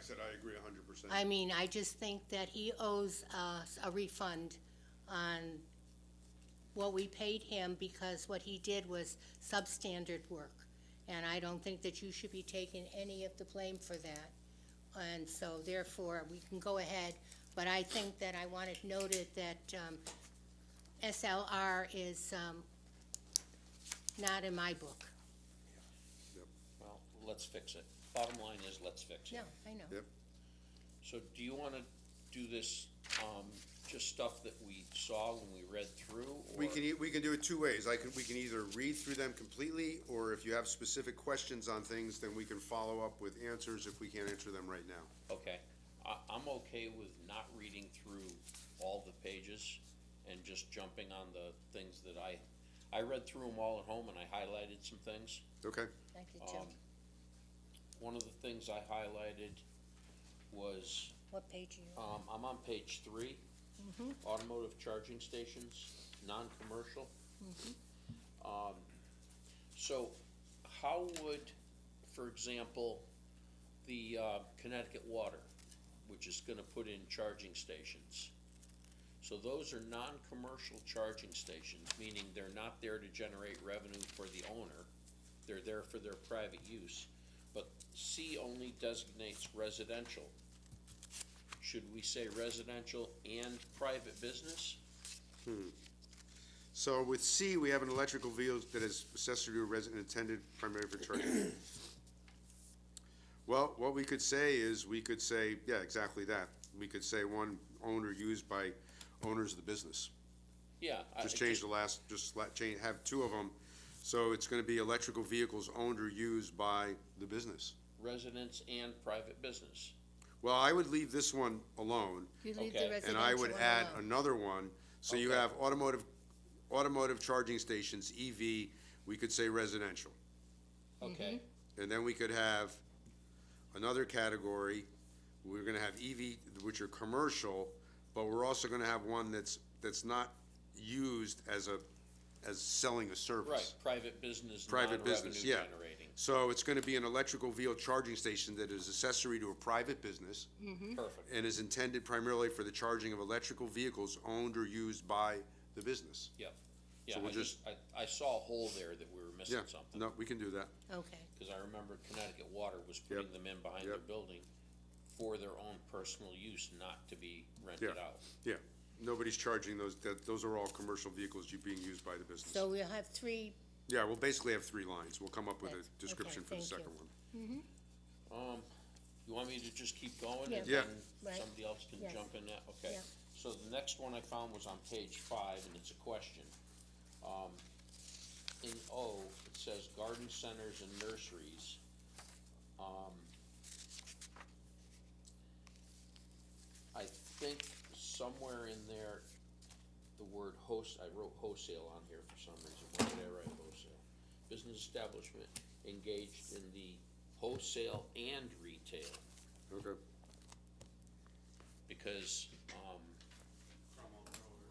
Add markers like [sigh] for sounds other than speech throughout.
said I agree a hundred percent. I mean, I just think that he owes us a refund on what we paid him because what he did was substandard work. And I don't think that you should be taking any of the blame for that. And so therefore, we can go ahead, but I think that I want it noted that, um, SLR is, um, not in my book. Well, let's fix it. Bottom line is, let's fix it. No, I know. Yep, So do you wanna do this, um, just stuff that we saw when we read through? we or- can, e- we can do it two ways, I can, we can either read through them completely, or if you have specific questions on things, then we can follow up with answers if we can't answer them right now. Okay, I, I'm okay with not reading through all the pages and just jumping on the things that I, I read through them all at home and I highlighted some things. Okay, I did too. Um, One of the things I highlighted was, What page are you on? um, I'm on page three, automotive charging stations, non-commercial. Um, so how would, for example, the, uh, Connecticut Water, which is gonna put in charging stations? So those are non-commercial charging stations, meaning they're not there to generate revenue for the owner. They're there for their private use, but C only designates residential should we say residential and private business? so with C, we have an electrical vehicle that is accessory to a resident intended primarily for charging. [coughs] Well, what we could say is, we could say, yeah, exactly that, we could say one owned or used by owners of the business. Yeah. I- Just change the last, just la change, have two of them, so it's gonna be electrical vehicles owned or used by the business. Residents and private business. Well, I would leave this one alone, You leave okay, the and residential I and I would add alone. another one, so you Okay. have automotive, automotive charging stations, EV, we could say residential. Okay, And then we could have another category, we're gonna have EV, which are commercial, but we're also gonna have one that's, that's not used as a, as selling a service. right, private business, Private non-revenue business, yeah. generating. So it's gonna be an electrical vehicle charging station that is accessory to a private business Perfect, and is intended primarily for the charging of electrical vehicles owned or used by the business. yep. Yeah, we'll I just, I, I saw a hole there that we were Yeah, missing something, no, we can do that. Okay. cause I remember Connecticut Water was putting them in behind their yep. building for their own personal use, not to be rented Yeah. out. Yeah, nobody's charging those, that, those are all commercial vehicles you, being used by the So business. we'll have three, Yeah, we'll basically have three lines. We'll come up with Okay, a description for the thank you. second one. Um, you want me to just keep going? Yeah. and Yeah. then Right. Somebody else can Yes. jump in that, okay. Yeah. So the next one I found was on page five, and it's a question. Um, in O, it says garden centers and nurseries. Um, I think somewhere in there, the word host, I wrote wholesale on here for some reason, why did I write wholesale? Business establishment engaged in the wholesale and retail, Okay, because, um.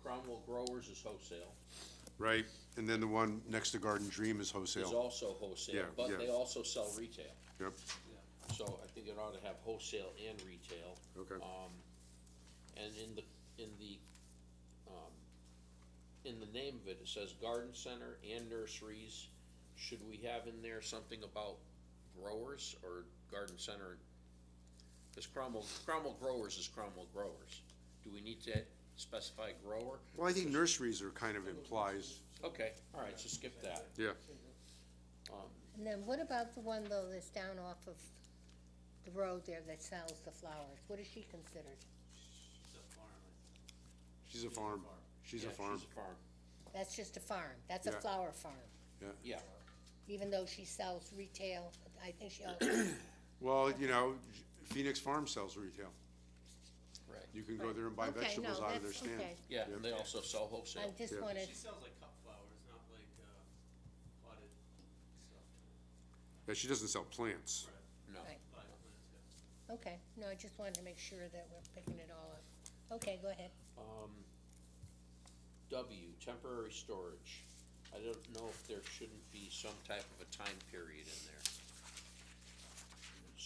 Cromwell Growers is wholesale, right, and then the one next to Garden Dream is is wholesale. also wholesale, Yeah, yeah. but they also sell retail, Yep, so I think it ought to have wholesale and retail. okay, Um, and in the, in the, um, in the name of it, it says garden center and nurseries. Should we have in there something about growers or garden center? Cause Cromwell, Cromwell Growers is Cromwell Growers. Do we need to specify grower? well, I think nurseries are kind of implies, Okay, alright, so skip that. yeah, and then what about the one though that's down off of the road there that sells the flowers? What is she considered? she's a farm, she's a Yeah, farm, She's a farm, That's just a farm, that's a Yeah. flower farm, yeah. yeah, even though she sells retail, I think she also, Well, you know, Phoenix Farm sells retail. right, You can go there and buy Okay, no, vegetables out of their that's- stand. okay. yeah, and they also sell I wholesale. just Yeah. wanted, She sells like cut flowers, not like, uh, potted stuff, Yeah, she doesn't sell plants. No, Right. potted plants, yeah. okay, no, I just wanted to make sure that we're picking it all up. Okay, go ahead. Um, W, temporary storage. I don't know if there shouldn't be some type of a time period in there.